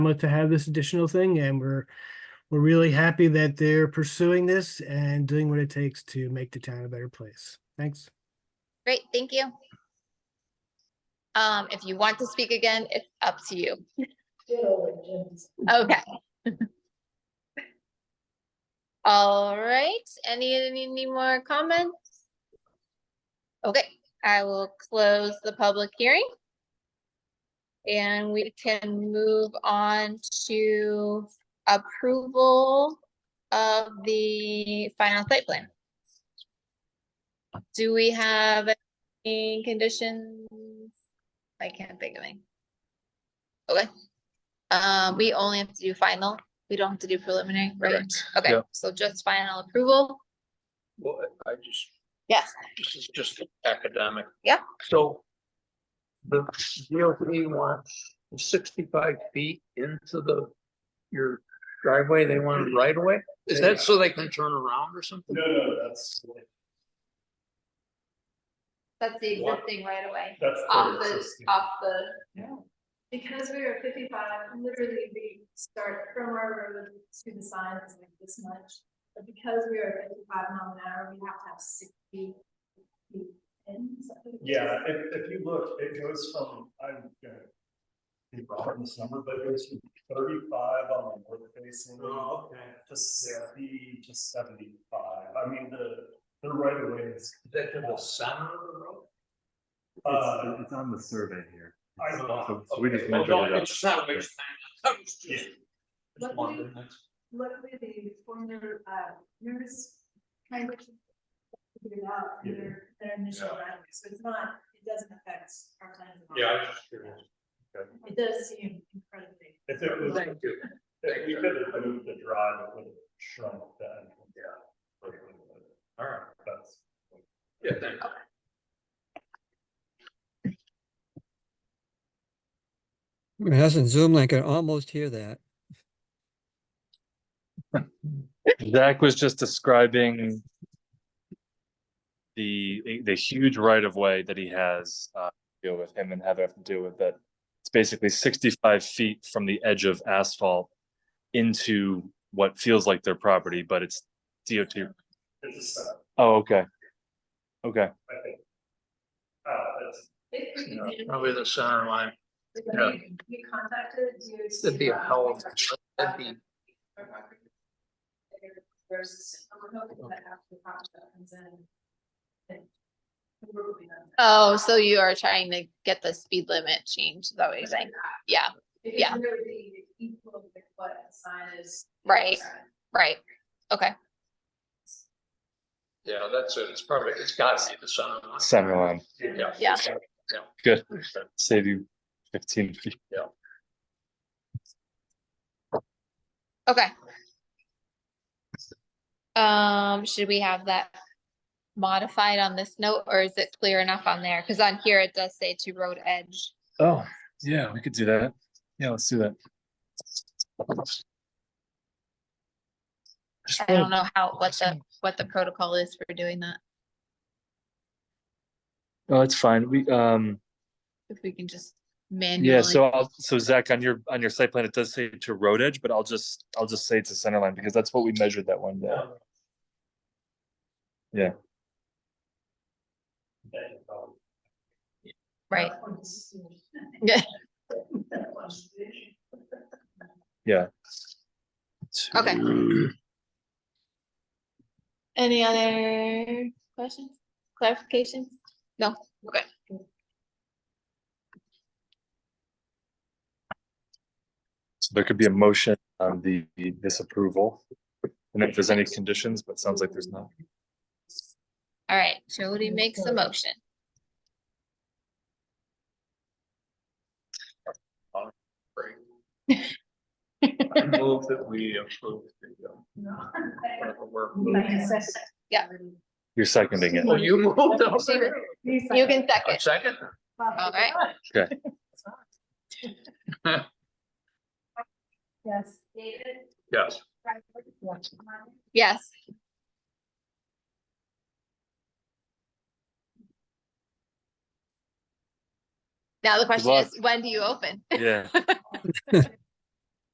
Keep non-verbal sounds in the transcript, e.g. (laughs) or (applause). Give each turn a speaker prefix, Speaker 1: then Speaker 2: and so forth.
Speaker 1: Monmouth to have this additional thing, and we're, we're really happy that they're pursuing this and doing what it takes to make the town a better place. Thanks.
Speaker 2: Great, thank you. Um, if you want to speak again, it's up to you. Okay. (laughs) All right, any, any any more comments? Okay, I will close the public hearing. And we can move on to approval of the final site plan. Do we have any conditions? I can't think of any. Okay. Um, we only have to do final. We don't have to do preliminary, right?
Speaker 3: Correct.
Speaker 2: Okay,
Speaker 3: Yeah.
Speaker 2: so just final approval.
Speaker 3: Well, I- I just,
Speaker 2: Yes.
Speaker 3: this is just academic.
Speaker 2: Yeah.
Speaker 3: So the DOT wants sixty-five feet into the, your driveway, they want it right away? Is that so they can turn around or something?
Speaker 4: No, no, that's,
Speaker 2: That's the
Speaker 4: What?
Speaker 2: existing right away.
Speaker 4: that's.
Speaker 2: Off
Speaker 4: the
Speaker 2: the,
Speaker 4: existing.
Speaker 2: off the,
Speaker 5: Because we were fifty-five, literally we start from our road to the sign is like this much. But because we are fifty-five mile an hour, we have to have sixty feet in. is that what it is?
Speaker 4: Yeah, if, if you look, it goes from, I'm gonna be wrong on this number, but it goes from thirty-five on the north facing.
Speaker 3: Oh,
Speaker 4: To sixty to seventy-five. I mean, the, the right of way is,
Speaker 3: Is that to the center of the road?
Speaker 4: uh,
Speaker 6: It's, it's on the survey here.
Speaker 4: I
Speaker 6: So so we just
Speaker 3: Well,
Speaker 6: measured it
Speaker 3: don't-
Speaker 6: up.
Speaker 3: It's not a big thing. (laughs) I was just-
Speaker 4: Yeah.
Speaker 3: just wondering, that's-
Speaker 5: Luckily, the former, uh, nurse kind of. Figured out
Speaker 4: Yeah.
Speaker 5: their, their initial
Speaker 3: Yeah.
Speaker 5: round, so it's not, it doesn't affect our plans at all.
Speaker 3: Yeah, I was just curious.
Speaker 5: It does seem incredibly.
Speaker 4: if it was,
Speaker 3: Thank you.
Speaker 4: if we could have moved the drive, it would have shrunk that.
Speaker 3: Yeah. All right.
Speaker 4: That's.
Speaker 3: Yeah, thank you.
Speaker 7: It hasn't zoomed like I can almost hear that.
Speaker 8: Zach was just describing the the huge right of way that he has uh, to deal with him and Heather have to deal with that. It's basically sixty five feet from the edge of asphalt into what feels like their property, but it's DOT.
Speaker 4: It's a setup,
Speaker 8: Oh, okay, okay.
Speaker 4: I think. Uh, it's,
Speaker 3: Yeah, Probably the center line. yeah.
Speaker 5: We we contacted you.
Speaker 3: It'd be a hell of, that'd be
Speaker 5: Versus, we're hoping that after the project comes in. then we're moving on.
Speaker 2: oh, so you are trying to get the speed limit changed, is that what you're saying? Yeah,
Speaker 5: It
Speaker 2: Yeah.
Speaker 5: could really be equal with what the sign is.
Speaker 2: right, right. Okay,
Speaker 3: Yeah, that's it. It's probably, it's gotta be the center line.
Speaker 8: Center line.
Speaker 3: Yeah.
Speaker 2: Yeah.
Speaker 8: Good. Save you fifteen feet.
Speaker 2: okay. Um, should we have that modified on this note, or is it clear enough on there? Cause on here it does say to road edge.
Speaker 8: Oh, yeah, we could do that. Yeah, let's do that. Just
Speaker 2: I
Speaker 8: real
Speaker 2: don't know how, what the, what the protocol is for doing that,
Speaker 8: Oh, it's fine. We, um,
Speaker 2: if we can just
Speaker 8: yeah,
Speaker 2: manually,
Speaker 8: so I'll, so Zach, on your, on your site plan, it does say to road edge, but I'll just, I'll just say it's a center line because that's what we measured that one day. Yeah.
Speaker 2: right?
Speaker 4: (laughs)
Speaker 2: Okay. Any other questions, clarifications? No, okay.
Speaker 8: So there could be a motion on the the disapproval. And if there's any conditions, but sounds like there's not.
Speaker 2: All right, Jody makes a motion.
Speaker 3: Great. I move that we approve the, uh, whatever we're moving.
Speaker 2: Yeah.
Speaker 8: You're
Speaker 2: (laughs)
Speaker 8: seconding it.
Speaker 3: Well, you moved up.
Speaker 2: You can second.
Speaker 3: A second?
Speaker 2: All right.
Speaker 8: Okay.
Speaker 5: Yes.
Speaker 3: Yes.
Speaker 2: Yes. Now the question
Speaker 8: luck.
Speaker 2: is, when do you open?
Speaker 8: Yeah.